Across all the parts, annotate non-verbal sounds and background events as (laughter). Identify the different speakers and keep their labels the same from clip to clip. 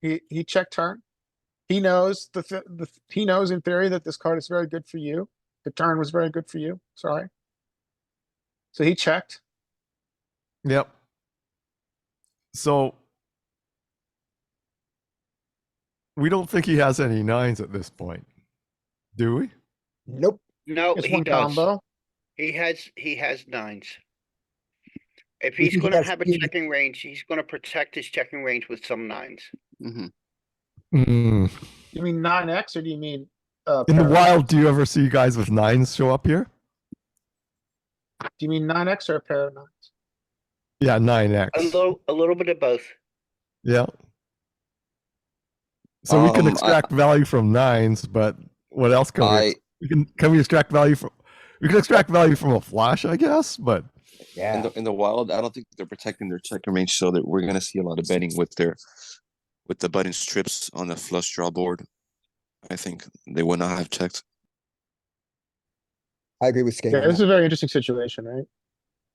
Speaker 1: He, he checked turn. He knows the, th- the, th- he knows in theory that this card is very good for you. The turn was very good for you, sorry. So he checked.
Speaker 2: Yep. So we don't think he has any nines at this point, do we?
Speaker 1: Nope.
Speaker 3: No,
Speaker 1: It's
Speaker 3: Oh, he
Speaker 1: one
Speaker 3: does.
Speaker 1: combo.
Speaker 3: He has, he has nines. If
Speaker 4: We
Speaker 3: he's
Speaker 4: think
Speaker 3: gonna
Speaker 4: that's
Speaker 3: have a
Speaker 4: huge.
Speaker 3: checking range, he's gonna protect his checking range with some nines.
Speaker 5: Mm-hmm.
Speaker 2: Mm.
Speaker 1: You mean nine X or do you mean? uh,
Speaker 2: In the
Speaker 1: pair?
Speaker 2: wild, do you ever see guys with nines show up here?
Speaker 1: Do you mean nine X or a pair of nines?
Speaker 2: Yeah, nine X.
Speaker 3: A little, a little bit of both.
Speaker 2: Yeah. So we can
Speaker 5: Um, I-
Speaker 2: extract value from nines, but what else can we?
Speaker 5: I
Speaker 2: ex- We can can we extract value from? We can extract value from a flash, I guess, but
Speaker 5: in
Speaker 4: Yeah.
Speaker 5: the, in the wild, I don't think they're protecting their checking range, so that we're gonna see a lot of betting with their with the button strips on the flush draw board. I think they would not have checked.
Speaker 4: I agree with Skate.
Speaker 1: Yeah,
Speaker 4: on
Speaker 1: this is
Speaker 4: that.
Speaker 1: a very interesting situation, right?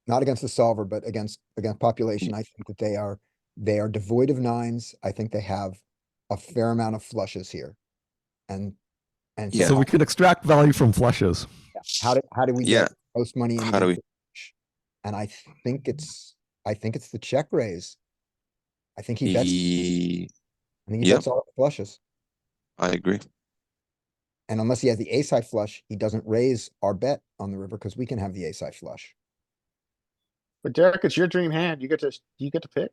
Speaker 4: Not against the solver, but against, against population. I think that they are, they are devoid of nines. I think they have a fair amount of flushes here. And, and
Speaker 5: Yeah.
Speaker 2: so
Speaker 4: how-
Speaker 2: we can extract value from flushes.
Speaker 4: how do, how do we
Speaker 5: Yeah,
Speaker 4: get most money? in
Speaker 5: How do
Speaker 4: the
Speaker 5: we-
Speaker 4: flush? And I think it's, I think it's the check raise. I think he bets,
Speaker 5: Ye-
Speaker 4: I think he
Speaker 5: yeah.
Speaker 4: bets all the flushes.
Speaker 5: I agree.
Speaker 4: And unless he has the ace high flush, he doesn't raise our bet on the river because we can have the ace high flush.
Speaker 1: But Derek, it's your dream hand. You get to, you get to pick.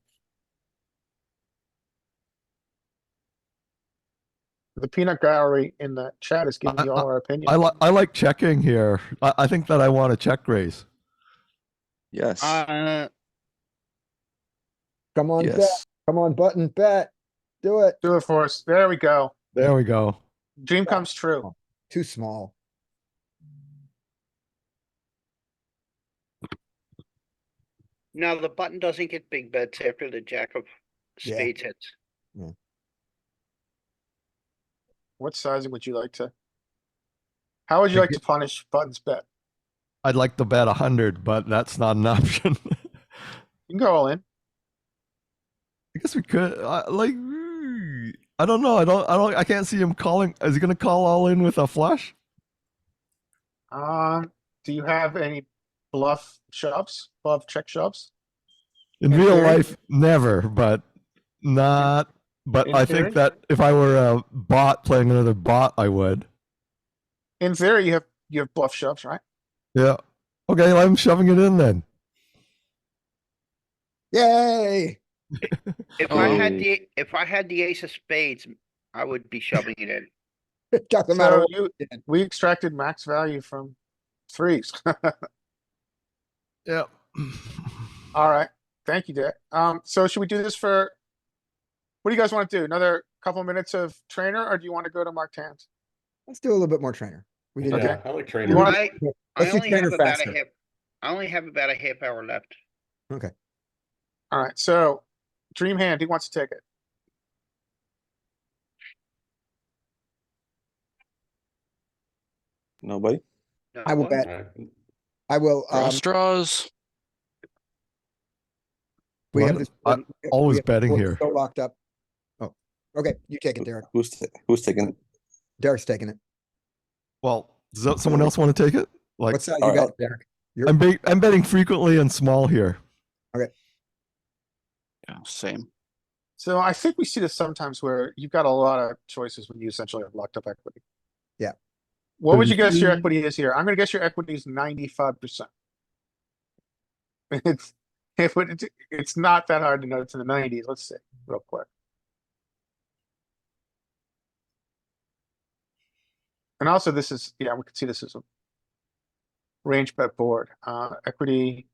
Speaker 1: The peanut gallery in the chat is giving
Speaker 2: I-
Speaker 1: you all our opinions.
Speaker 2: I like I like checking here. I, I think that I want to check raise.
Speaker 5: Yes.
Speaker 3: Uh,
Speaker 4: Come on, bet,
Speaker 5: yes.
Speaker 4: come on, button, bet, do it.
Speaker 1: Do it for us. There we go.
Speaker 2: There we go.
Speaker 1: Dream comes true.
Speaker 4: Too small.
Speaker 3: now the button doesn't get big bets after the jack of
Speaker 4: Yeah.
Speaker 3: spades hits.
Speaker 1: What sizing would you like to? How would you like to punish buttons bet?
Speaker 2: I'd like to bet hundred, but that's not an (laughs) option.
Speaker 1: You can go all in.
Speaker 2: I guess we could. I, like, mm, I don't know. I don't. I don't. I can't see him calling. Is he gonna call all in with a flush?
Speaker 1: Um, do you have any bluff shoves, bluff check shoves?
Speaker 2: In
Speaker 1: In
Speaker 2: real
Speaker 1: theory.
Speaker 2: life, never. But not. But
Speaker 1: in
Speaker 2: I
Speaker 1: theory.
Speaker 2: think that if I were a bot playing another bot, I would.
Speaker 1: In theory, you have, you have bluff shoves, right?
Speaker 2: Yeah. Okay. I'm shoving it in then.
Speaker 4: Yay! (laughs)
Speaker 3: If I
Speaker 5: Oh.
Speaker 3: had the, if I had the ace of spades, I would be shoving it in.
Speaker 4: Got them out of
Speaker 1: So
Speaker 4: order.
Speaker 1: you,
Speaker 4: did.
Speaker 1: we extracted max value from threes. (laughs)
Speaker 2: Yeah.
Speaker 1: Alright, thank you, Dick. Um, so should we do this for? What do you guys wanna do? Another couple minutes of trainer, or do you wanna go to marked hands?
Speaker 4: Let's do a little bit more trainer. We did
Speaker 1: Okay.
Speaker 4: that.
Speaker 6: Yeah, I like
Speaker 1: You
Speaker 6: trainers.
Speaker 1: wanna-
Speaker 3: I, I
Speaker 4: Let's do
Speaker 3: only have
Speaker 4: trainer
Speaker 3: about a
Speaker 4: faster.
Speaker 3: half, I only have about a half hour left.
Speaker 1: Alright, so dream hand, he wants to take it.
Speaker 5: Nobody.
Speaker 3: No,
Speaker 4: I will
Speaker 3: what?
Speaker 4: bet.
Speaker 6: Alright.
Speaker 4: I will, um,
Speaker 5: Cross draws.
Speaker 4: we have
Speaker 2: Love
Speaker 4: this.
Speaker 2: it. I'm
Speaker 4: we-
Speaker 2: (laughs)
Speaker 4: we
Speaker 2: uh, always
Speaker 4: have-
Speaker 2: betting
Speaker 4: we're
Speaker 2: here.
Speaker 4: So locked up. Oh, okay, you take it, Derek.
Speaker 5: Who's ta- who's taking it?
Speaker 4: Derek's taking it.
Speaker 2: Well, does that, someone else want to take it? Like,
Speaker 4: What side you
Speaker 5: alright,
Speaker 4: got, Derek? You're-
Speaker 2: I'm be- I'm betting frequently and small here.
Speaker 7: Yeah, same.
Speaker 1: So I think we see this sometimes where you've got a lot of choices when you essentially have locked up equity.
Speaker 4: Yeah.
Speaker 1: What would you guess your
Speaker 2: Mhm.
Speaker 1: equity is here? I'm gonna guess your equity is ninety-five percent. It's, it would, it's not that hard to know it's in the nineties. Let's see, real quick. And also this is, yeah, we can see this is a range bet board, uh, equity.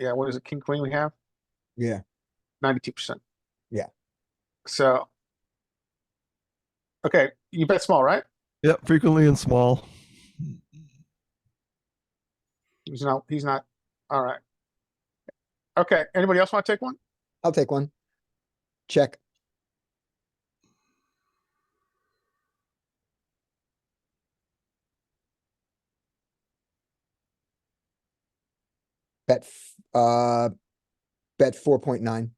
Speaker 1: Yeah, what is it? King, queen we have?
Speaker 4: Yeah,
Speaker 1: ninety-two percent.
Speaker 4: Yeah.
Speaker 1: So. Okay, you bet small, right?
Speaker 2: Yeah, frequently and small.
Speaker 1: He's not, he's not, alright. Okay, anybody else wanna take one?
Speaker 4: I'll take one. Check. Bet, f- uh, bet four point nine.